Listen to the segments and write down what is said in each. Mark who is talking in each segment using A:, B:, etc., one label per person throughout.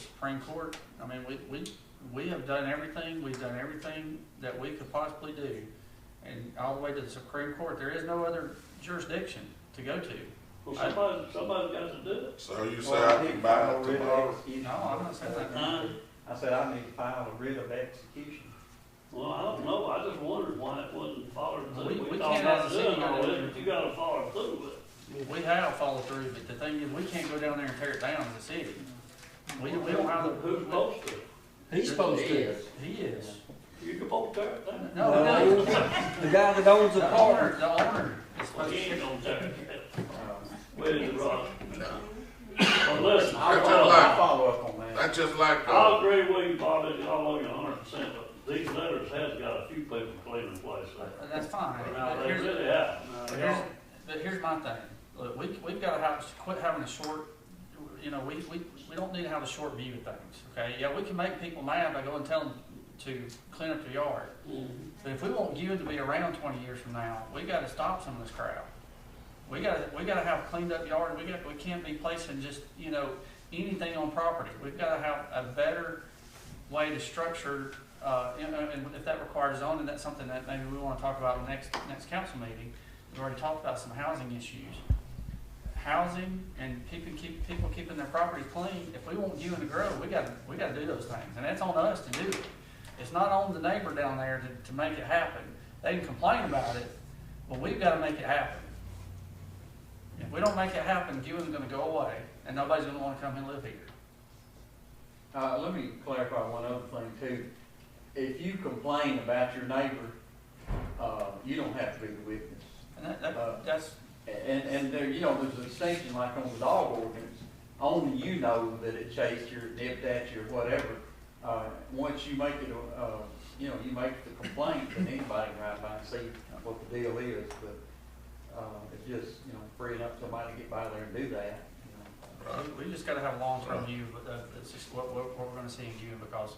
A: Supreme Court. I mean, we, we, we have done everything, we've done everything that we could possibly do. And all the way to the Supreme Court, there is no other jurisdiction to go to.
B: Well, somebody, somebody's got to do it.
C: So you say I can buy it tomorrow?
A: No, I'm not saying that.
B: Huh?
D: I said I need to file a writ of execution.
B: Well, I don't know, I just wondered why it wasn't followed
A: We-
B: through.
A: we
B: We thought
A: can't
B: about
A: ask the
B: doing
A: city
B: all
A: to do
B: this,
A: it.
B: but you gotta follow through with it.
A: We have followed through, but the thing is, we can't go down there and tear it down as a city. We, we don't have the.
B: Who's supposed to?
E: He's supposed to.
A: He is.
B: You can vote tear it down.
A: No, no,
E: The guy that owns the
A: the
E: park.
A: owner, the owner is
B: Well,
A: supposed
B: he
A: to.
B: ain't gonna tear it down.
D: Um,
B: Where is it, Rob? Well, listen,
D: I'll
B: I
C: That's
D: follow,
C: all right.
D: I'll follow up on that.
C: That's just like,
B: I
C: uh,
B: agree with you, Bobby, I love you a hundred percent, but these letters has got a few people playing in place there.
A: That's fine.
B: Now,
A: But
B: they
A: here's,
B: really have. Now,
A: But
B: they
A: here's,
B: are.
A: but here's my thing, look, we, we've gotta have, quit having a short, you know, we, we, we don't need to have a short view of things, okay? Yeah, we can make people mad by going and telling them to clean up their yard,
B: Mhm.
A: but if we want you to be around twenty years from now, we gotta stop some of this crap. We gotta, we gotta have cleaned up yard, we got, we can't be placing just, you know, anything on property. We've gotta have a better way to structure, uh, you know, and if that requires zoning, that's something that maybe we wanna talk about in the next, next council meeting. We've already talked about some housing issues. Housing and keeping, keep, people keeping their properties clean, if we want you in the grove, we gotta, we gotta do those things, and that's on us to do it. It's not on the neighbor down there to, to make it happen. They can complain about it, but we've gotta make it happen. If we don't make it happen, Gewin's gonna go away, and nobody's gonna wanna come and live here.
D: Uh, let me clarify one other thing too. If you complain about your neighbor, uh, you don't have to be the witness.
A: And that, that, that's,
D: And, and there, you know, there's a distinction like on the dog ordinance, only you know that it chased you, or nipped at you, or whatever. Uh, once you make it, uh, you know, you make the complaint, then anybody can ride by and see what the deal is, but, uh, it's just, you know, freeing up somebody to get by there and do that, you know.
A: we we just gotta have a long-term view, but uh, that's just what, what, what we're gonna see in Gewin, because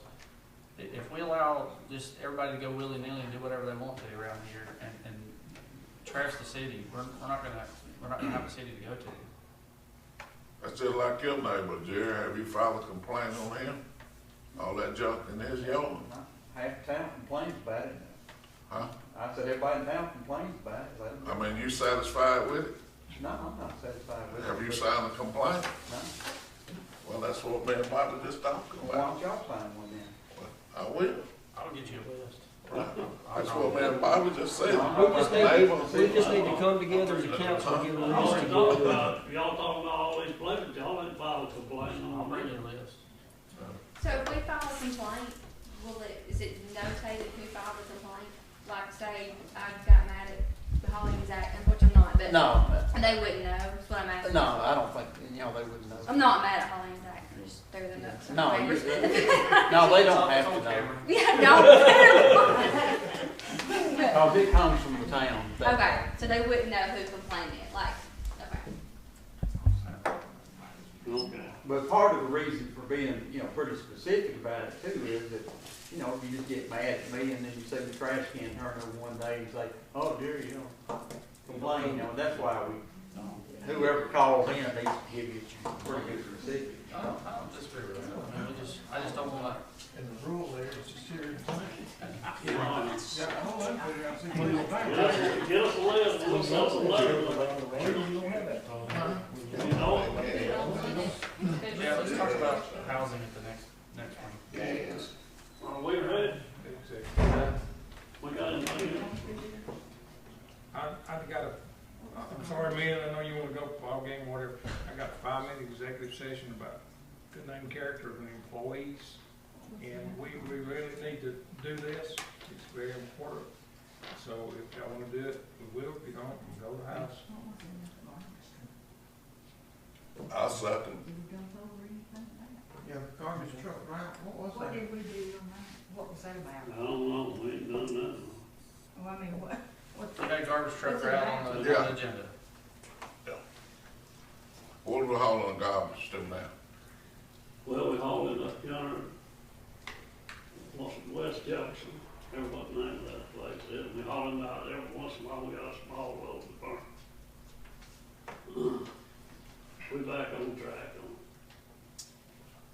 A: i- if we allow just everybody to go willy-nilly and do whatever they want to around here and, and trash the city, we're, we're not gonna, we're not gonna have a city to go to.
C: that's just like your neighbor, Jerry. Have you filed a complaint on him? All that junk in his yard,
D: Half the town complains about it.
C: huh?
D: I said, everybody in town complains about it. I
C: I
D: said,
C: mean, you satisfied with it?
D: No, I'm not satisfied with it.
C: Have you
D: but-
C: signed a complaint?
D: No.
C: Well, that's what me and Bobby just talking
D: Well, Why
C: about.
D: don't y'all sign one then?
C: I will.
A: I'll get you a list.
C: That's what me and Bobby just said.
E: We just need, we
C: Neighbor.
E: just need to come together as a council and get a
B: I always
E: list
B: talk
E: together.
B: about, y'all talking about all these places, y'all ain't filed a complaint
A: I'll
B: on
A: bring you
B: them.
A: a list.
F: So if we file a complaint, will it, is it notated who filed the complaint? Like say, I got mad at the Holly Act, which I'm not, but.
D: No,
F: They wouldn't know, is what I'm asking.
D: no, I don't think, you know, they wouldn't know.
F: I'm not mad at Holly Act, I'm just throwing the nuts.
D: No, you- no, they don't have to know.
F: Yeah, no.
D: Cause it comes from the town. that-
F: Okay, so they wouldn't know who complained it, like, okay.
B: Okay.
D: But part of the reason for being, you know, pretty specific about it too is that, you know, if you just get mad at me and then you see the trash can turn over one day and say, oh dear, you know, complain, you know, that's why we, whoever calls in needs to give you a pretty good receipt.
A: I don't, I don't disagree with that, I mean, we just, I just don't wanna,
G: in the rural areas, it's serious.
B: Get us
G: Yeah, I don't like that, I see people back.
B: get us a list, we'll send some letters. You know,
A: yeah, let's talk about housing at the next, next one.
C: Yes.
B: are we ready? We got anything else?
H: I, I've got a, I'm sorry, man, I know you wanna go ball game, whatever. I got a five-minute executive session about good name character of employees. And we, we really need to do this. It's very important. So if y'all wanna do it, we will. If you don't, we'll go to the house.
C: I second.
G: Yeah, the garbage truck, right, what was that?
I: What did we do on that? What was that about?
B: I don't know, we ain't done nothing.
I: Well, I mean, what, what,
A: We got garbage truck route on the, on
C: Yeah.
A: the agenda.
C: What are we hauling the garbage to now?
B: Well, we hauled it up yonder, once in West Jackson, everybody named that place, and we hauled it out every once in a while, we got a small load to burn. We back on track.